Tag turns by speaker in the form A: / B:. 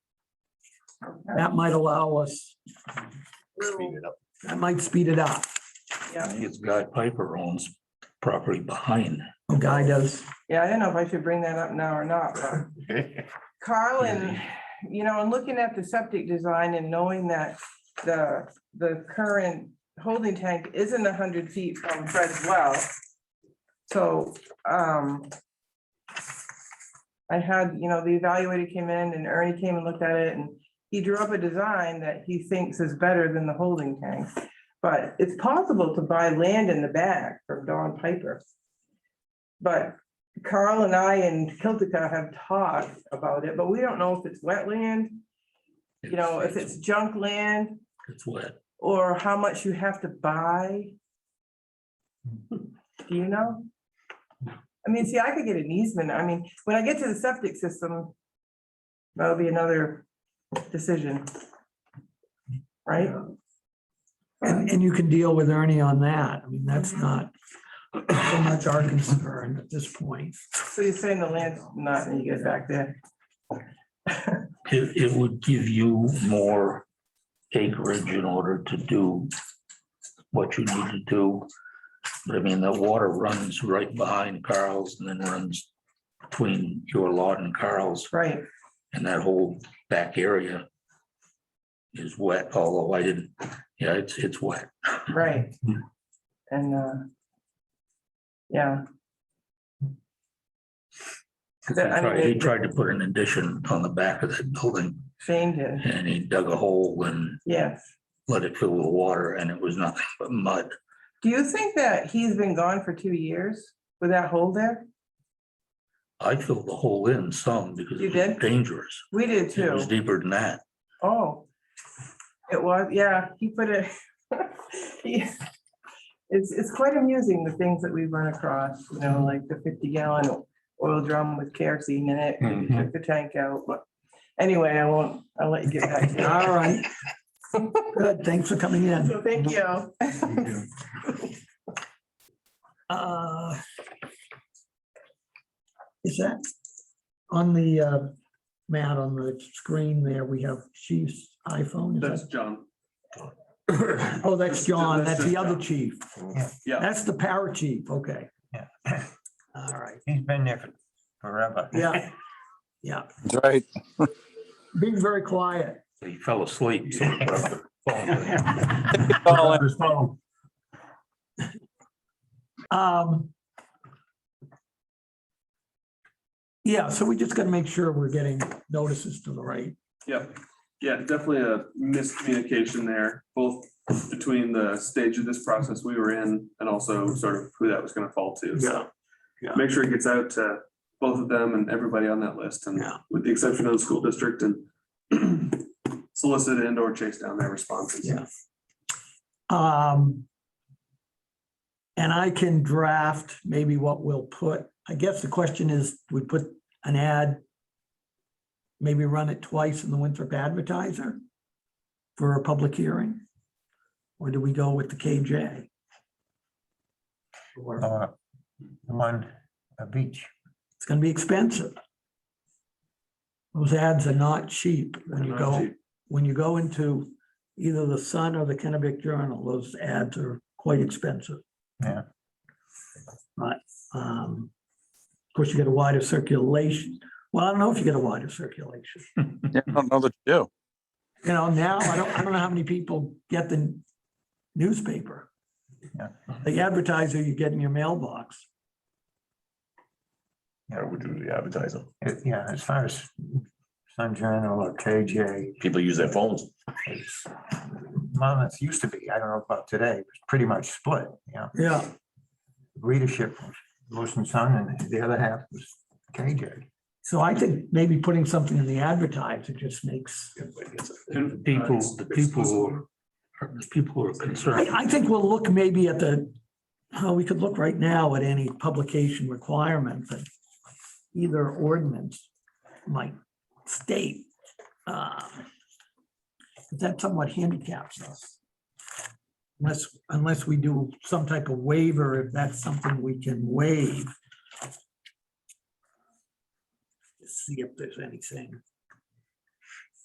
A: That might allow us,
B: Speed it up.
A: that might speed it up.
C: Yeah.
D: I think it's Guy Piper owns property behind.
A: A guy does.
C: Yeah, I don't know if I should bring that up now or not, but Carl and, you know, and looking at the septic design and knowing that the, the current holding tank isn't hundred feet from Fred's well. So, um, I had, you know, the evaluator came in and Ernie came and looked at it and he drew up a design that he thinks is better than the holding tank. But it's possible to buy land in the back from Don Piper. But Carl and I and Kiltica have talked about it, but we don't know if it's wetland, you know, if it's junk land
D: It's wet.
C: or how much you have to buy. Do you know? I mean, see, I could get an easement. I mean, when I get to the septic system, that'll be another decision. Right?
A: And, and you can deal with Ernie on that. I mean, that's not so much our concern at this point.
C: So you're saying the land's not, when you get back there.
D: It, it would give you more acreage in order to do what you need to do. But I mean, the water runs right behind Carl's and then runs between your lot and Carl's
C: Right.
D: and that whole back area is wet, although I didn't, yeah, it's, it's wet.
C: Right.
D: Hmm.
C: And, uh, yeah,
D: He
C: That- I mean,
D: tried- he
C: it-
D: tried to put an addition on the back of that building
C: Shane did,
D: and he dug a hole and
C: yes.
D: let it fill with water and it was nothing but mud.
C: Do you think that he's been gone for two years with that hole there?
D: I filled the hole in some because
C: You
D: it was
C: did?
D: dangerous.
C: We did
D: It was
C: too.
D: deeper than that.
C: Oh. It was, yeah, he put it. he- It's, it's quite amusing, the things that we run across, you know, like the fifty gallon oil drum with kerosene in it,
D: Mhm.
C: took the tank out, but anyway, I won't, I'll let you get back. to it.
A: All right. Good, thanks for coming in.
C: So Thank you.
A: Uh, Is that on the, uh, Matt, on the screen there, we have chief's iPhone? Is that-
E: That's John.
A: Oh, that's John, that's the other chief.
E: Yeah,
A: That's the power chief, okay.
F: Yeah.
A: All right,
F: He's been there for forever.
A: yeah, yeah,
G: That's right.
A: being very quiet.
D: He fell asleep. so he dropped the phone.
G: Call in.
A: Um. Yeah, so we just gotta make sure we're getting notices to the right.
E: yeah, yeah, definitely a miscommunication there, both between the stage of this process we were in and also sort of who that was gonna fall to. So
A: yeah.
E: Make sure it gets out to both of them and everybody on that list and
A: Yeah.
E: with the exception of the school district and solicit and or chase down their responses.
A: Yeah. Um. And I can draft maybe what we'll put, I guess the question is, we put an ad. Maybe run it twice in the Winthrop Advertiser for a public hearing? Or do we go with the KJ? Or-
F: Uh, One, a beach.
A: It's gonna be expensive. Those ads are not cheap when you
E: Not
A: go,
E: cheap.
A: when you go into either the Sun or the Kennebec Journal, those ads are quite expensive.
F: Yeah.
A: But, um, of course, you get a wider circulation. Well, I don't know if you get a wider circulation.
G: Yeah, I don't know that you do.
A: You know, now, I don't, I don't know how many people get the newspaper.
F: Yeah.
A: The advertiser you get in your mailbox.
H: I would do the advertising.
F: Uh, Yeah, as far as Sun Journal or KJ,
H: People use their phones.
F: it's- Monmouth used to be, I don't know about today, it was pretty much split, you know,
A: Yeah.
F: readership was Lewiston Sun and the other half was KJ.
A: So I think maybe putting something in the advertiser just makes,
D: The People, the people who are, the people who are
A: I,
D: concerned.
A: I think we'll look maybe at the, oh, we could look right now at any publication requirement that either ordinance might state. uh, That somewhat handicaps us. Unless, unless we do some type of waiver, if that's something we can waive. See if there's anything.